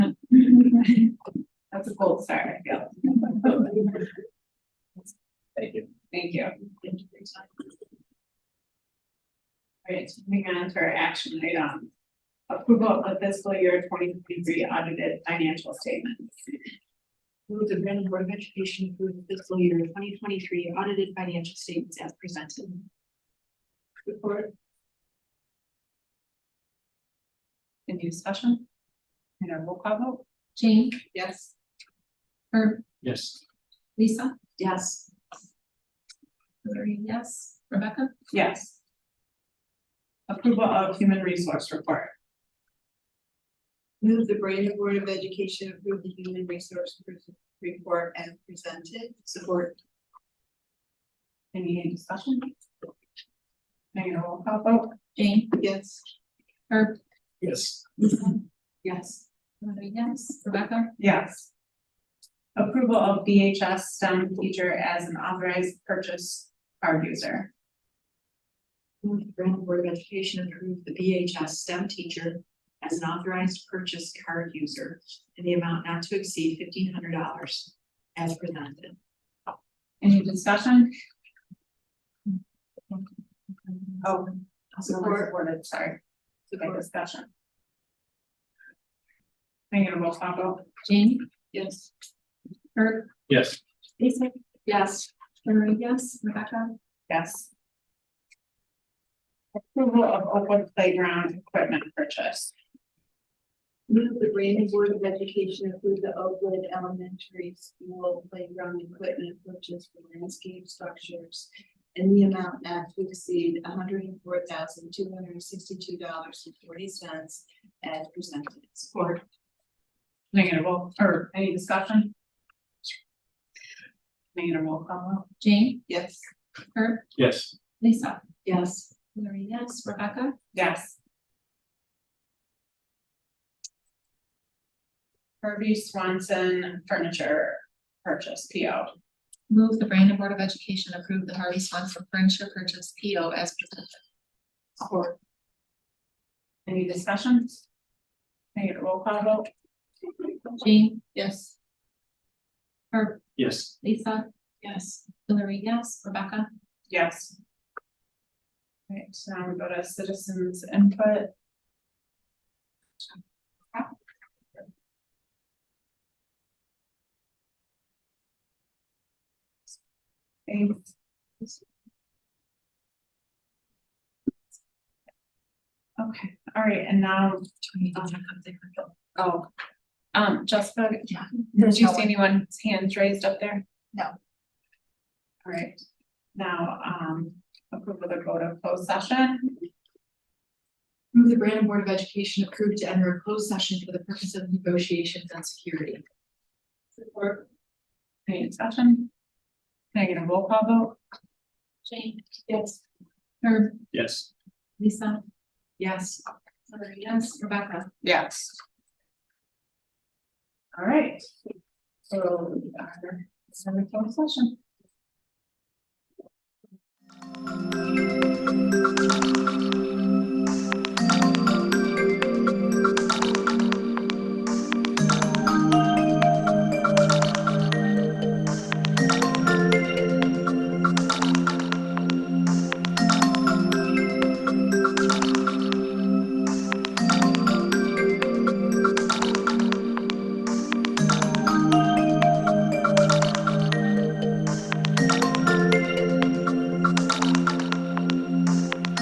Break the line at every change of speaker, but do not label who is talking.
That's a gold star, I feel.
Thank you.
Thank you. All right, moving on to our action item. Approval of fiscal year twenty twenty-three audited financial statements.
Move the Brandon Board of Education approve the fiscal year twenty twenty-three audited financial statements as presented.
Report. Any discussion? And a roll call vote?
Jane,
Yes.
Herb,
Yes.
Lisa,
Yes.
Hillary, yes, Rebecca,
Yes. Approval of human resource report.
Move the Brandon Board of Education approve the human resource report as presented. Support.
Any discussion? Any roll call vote?
Jane,
Yes.
Herb,
Yes.
Lisa,
Yes.
Hillary, yes, Rebecca,
Yes. Approval of BHS STEM teacher as an authorized purchase card user.
Move the Brandon Board of Education approve the BHS STEM teacher as an authorized purchase card user in the amount not to exceed fifteen hundred dollars as presented.
Any discussion? Oh,
Support.
supported, sorry, by discussion. Can I get a roll call vote?
Jane,
Yes.
Herb,
Yes.
Lisa,
Yes.
Hillary, yes, Rebecca,
Yes. Approval of open playground equipment purchase.
Move the Brandon Board of Education approve the Oakwood Elementary School playground equipment purchase for landscape structures in the amount not to exceed hundred and four thousand two hundred and sixty-two dollars and forty cents as presented. Support.
Can I get a roll, or any discussion? Can I get a roll call vote?
Jane,
Yes.
Herb,
Yes.
Lisa,
Yes.
Hillary, yes, Rebecca,
Yes. Herbie Swanson Furniture Purchase PO.
move the Brandon Board of Education approve the Harvey Swanson furniture purchase P O as presented.
Support.
Any discussions? Can I get a roll call vote?
Jane,
Yes.
Herb,
Yes.
Lisa,
Yes.
Hillary, yes, Rebecca,
Yes. Right, so now we go to citizens input. Thanks. Okay, all right, and now, oh, um, Jessica,
Yeah.
did you see anyone's hands raised up there?
No.
All right, now, um, approval to go to closed session.
Move the Brandon Board of Education approve to enter a closed session for the purpose of negotiations on security.
Support. Any discussion? Can I get a roll call vote?
Jane,
Yes.
Herb,
Yes.
Lisa,
Yes.
Hillary, yes, Rebecca,
Yes. All right. So, we are, it's in the closed session.